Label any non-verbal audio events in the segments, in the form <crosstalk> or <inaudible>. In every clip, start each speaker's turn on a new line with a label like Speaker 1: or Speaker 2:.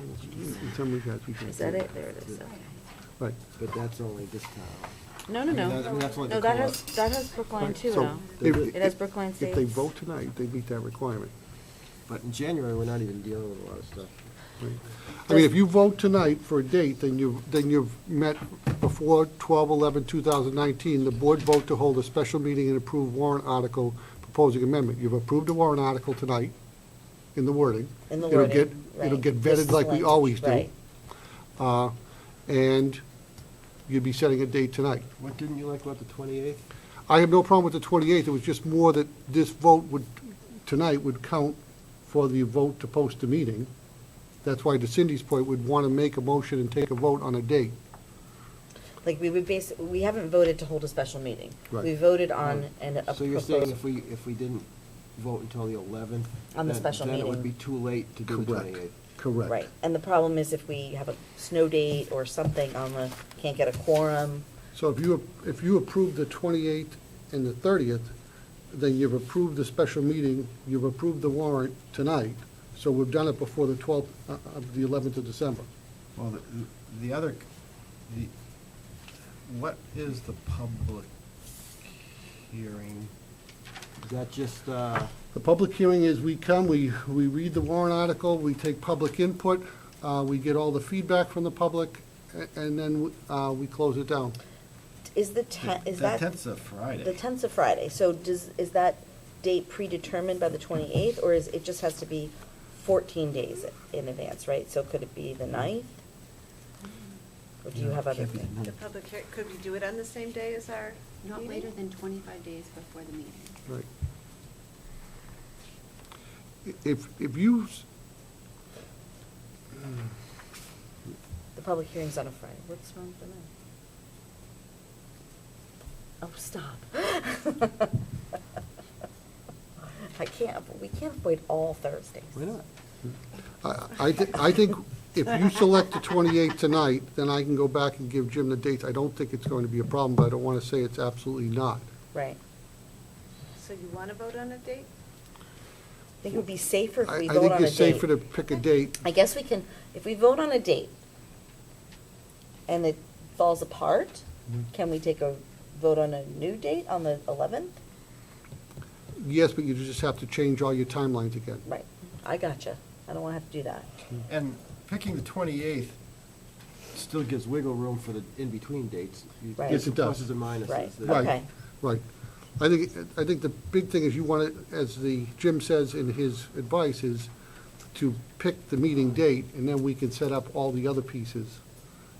Speaker 1: in some regards, we should.
Speaker 2: Is that it? There it is, okay.
Speaker 1: Right.
Speaker 3: But that's only this town.
Speaker 2: No, no,
Speaker 3: I mean, that- I
Speaker 2: no.
Speaker 3: mean, that's what
Speaker 2: No,
Speaker 3: they
Speaker 2: that
Speaker 3: call
Speaker 2: has,
Speaker 3: it.
Speaker 2: that has Brookline
Speaker 1: Right,
Speaker 2: too
Speaker 1: so
Speaker 2: now.
Speaker 1: if-
Speaker 2: It has Brookline
Speaker 1: If they
Speaker 2: Estates.
Speaker 1: vote tonight, they meet that requirement.
Speaker 3: But in January, we're not even dealing with a lot of stuff.
Speaker 1: right? I mean, if you vote tonight for a date, then you've, then you've met before 12/11/2019, the board vote to hold a special meeting and approve warrant article proposing amendment. You've approved a warrant article tonight in the wording.
Speaker 4: In the
Speaker 1: It'll
Speaker 4: wording,
Speaker 1: get- It'll
Speaker 4: right.
Speaker 1: get
Speaker 4: This
Speaker 1: vetted
Speaker 4: is
Speaker 1: like we
Speaker 4: language,
Speaker 1: always do.
Speaker 4: right.
Speaker 1: Uh, And you'd be setting a date tonight.
Speaker 3: What didn't you like about the twenty-eighth?
Speaker 1: I have no problem with the 28th, it was just more that this vote would, tonight would count for the vote to post the meeting. That's why to Cindy's point, we'd want to make a motion and take a vote on a date.
Speaker 4: Like, we would base, we haven't voted to hold a special meeting.
Speaker 1: Right.
Speaker 4: We voted on an, a
Speaker 3: So you're saying
Speaker 4: proposal.
Speaker 3: if we, if we didn't vote until the eleventh?
Speaker 4: On the special
Speaker 3: Then it would be
Speaker 4: meeting.
Speaker 3: too late to do the twenty-eighth.
Speaker 1: correct.
Speaker 4: Right, and the problem is if we have a snow date or something on the, can't get a quorum,
Speaker 1: So if you, if you approve the 28th and the 30th, then you've approved the special meeting, you've approved the warrant tonight, so we've done it before the 12th, uh, of the 11th of December.
Speaker 5: Well, the, the other, the, what is the public hearing?
Speaker 3: Is that just, uh,
Speaker 1: The public hearing is, we come, we, we read the warrant article, we take public input, uh, we get all the feedback from the public, a- and then, uh, we close it down.
Speaker 4: is the tenth, is
Speaker 5: The
Speaker 4: that?
Speaker 5: tenth's a Friday.
Speaker 4: The tenth's a Friday, so does, is that date predetermined by the twenty-eighth, or is, it just has to be fourteen days in advance, right? So could it be the ninth? Or do you have other?
Speaker 3: Can't be the
Speaker 4: things?
Speaker 3: ninth.
Speaker 6: The public, hea- could we do it on the same day as our
Speaker 7: Not
Speaker 6: meeting?
Speaker 7: later than 25 days before the meeting.
Speaker 1: Right. I- If, if you, s-
Speaker 4: The public hearing's on a Friday, what's wrong with the ninth? Oh, stop. <laughs> I can't, we can't avoid all Thursdays.
Speaker 3: why not?
Speaker 1: I, I thi- I think, if you select the 28th tonight, then I can go back and give Jim the dates. I don't think it's going to be a problem, but I don't want to say it's absolutely not.
Speaker 4: Right.
Speaker 6: So you want to vote on a date?
Speaker 4: I think it would be safer if
Speaker 1: I,
Speaker 4: we
Speaker 1: I
Speaker 4: vote
Speaker 1: think
Speaker 4: on a
Speaker 1: you're
Speaker 4: date.
Speaker 1: safer to pick a date.
Speaker 4: I guess we can, if we vote on a date and it falls apart,
Speaker 1: Mm-hmm.
Speaker 4: can we take a vote on a new date on the eleventh?
Speaker 1: Yes, but you just have to change all your timelines again.
Speaker 4: Right, I gotcha. I don't wanna have to do that.
Speaker 1: Hmm.
Speaker 5: And picking the twenty-eighth,
Speaker 3: Still gives wiggle room for the in-between dates. You-
Speaker 4: Right.
Speaker 1: Yes, it does.
Speaker 3: Pluses and minuses.
Speaker 4: Right,
Speaker 3: There's-
Speaker 1: Right,
Speaker 4: Okay.
Speaker 1: right. I think, I think the big thing is you want to, as the, Jim says in his advice, is to pick the meeting date, and then we can set up all the other pieces,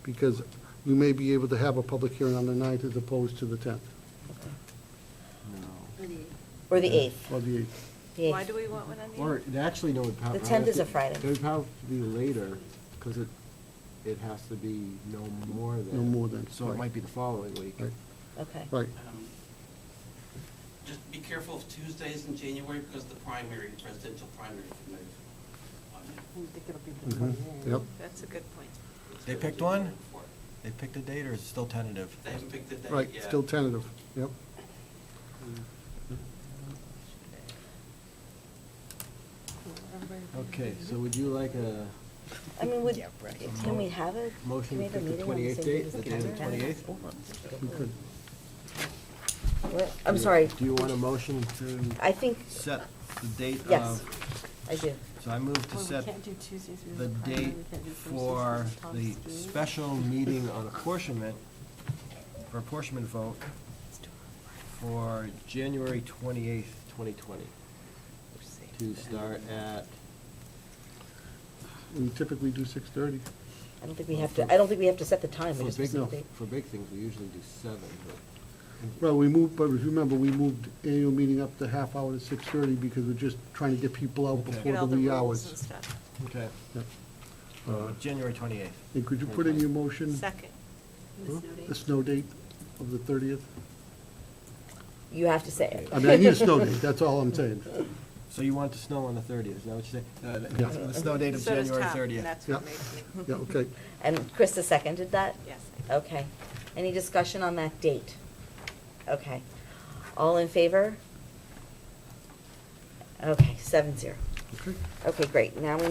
Speaker 1: because we may be able to have a public hearing on the ninth as opposed to the tenth,
Speaker 3: No.
Speaker 7: Or the-
Speaker 4: Or the eighth,
Speaker 1: or the eighth.
Speaker 4: the eighth.
Speaker 6: Why do we want one on the
Speaker 3: Or, it actually, no, it'd probably.
Speaker 4: The 10th is a Friday.
Speaker 3: It would probably be later, because it, it has to be no more than.
Speaker 1: No more than,
Speaker 3: So it
Speaker 1: right.
Speaker 3: might be the following week.
Speaker 1: Right.
Speaker 4: Okay.
Speaker 1: Right,
Speaker 8: Um, Just be careful of Tuesdays in January because the primary, presidential primary can move on
Speaker 7: I
Speaker 8: you.
Speaker 7: don't think it'll be the
Speaker 1: Mhm.
Speaker 7: 28th.
Speaker 1: yep.
Speaker 6: That's a good point.
Speaker 8: It's
Speaker 9: They
Speaker 8: gonna
Speaker 9: picked
Speaker 8: be
Speaker 9: one?
Speaker 8: moving forward.
Speaker 9: They picked a date, or is it still tentative?
Speaker 8: They haven't picked the date yet.
Speaker 1: Right, still tentative, yep.
Speaker 3: Okay, so would you like a
Speaker 4: I mean, would, can we have a,
Speaker 3: Motion
Speaker 4: can we have a
Speaker 3: to pick the
Speaker 4: meeting on the
Speaker 3: 28th date,
Speaker 4: same date as
Speaker 3: the
Speaker 4: the
Speaker 3: date of the 28th?
Speaker 4: What? I'm sorry,
Speaker 3: Do you want a motion to
Speaker 4: I think,
Speaker 5: set the date of.
Speaker 4: Yes. I do.
Speaker 5: So I move to
Speaker 7: Well,
Speaker 5: set
Speaker 7: we can't do Tuesdays. we have
Speaker 5: the
Speaker 7: a primary,
Speaker 5: date
Speaker 7: we can't do Thursdays,
Speaker 5: for
Speaker 7: it's Tom's
Speaker 5: the
Speaker 7: Day.
Speaker 3: special meeting on apportionment,
Speaker 5: for apportionment vote for
Speaker 3: January twenty-eighth, twenty twenty, to start at,
Speaker 1: We typically do six-thirty.
Speaker 4: I don't think we have to, I don't think we have to set the time.
Speaker 3: for
Speaker 4: We just
Speaker 3: big,
Speaker 4: set the date.
Speaker 3: for big things, we usually do seven, but
Speaker 1: Well, we moved, but if you remember, we moved annual meeting up to half hour to six-thirty, because we're just trying to get people out
Speaker 3: Okay.
Speaker 1: before
Speaker 6: Get all
Speaker 1: the
Speaker 6: the
Speaker 1: wee
Speaker 6: rules and
Speaker 1: hours.
Speaker 6: stuff.
Speaker 3: Okay.
Speaker 1: Yep.
Speaker 9: Uh, January 28th.
Speaker 1: And could you put in your motion?
Speaker 6: Second.
Speaker 7: The snow
Speaker 1: The
Speaker 7: date.
Speaker 1: snow date of the thirtieth?
Speaker 4: You have to say it.
Speaker 1: I mean, I need a
Speaker 4: <laughs>
Speaker 1: snow date, that's all I'm saying.
Speaker 3: So you want it to snow on the thirtieth, is that what you say? Uh,
Speaker 1: Yeah.
Speaker 3: The snow date of
Speaker 6: So
Speaker 3: January
Speaker 6: does Tom, and
Speaker 3: thirtieth.
Speaker 6: that's what
Speaker 1: Yeah.
Speaker 6: makes it,
Speaker 1: Yeah, okay.
Speaker 4: And Krista seconded that?
Speaker 6: yes.
Speaker 4: Okay. Any discussion on that date? Okay. All in favor? Okay, seven zero.
Speaker 1: Okay.
Speaker 4: Okay, great. Now we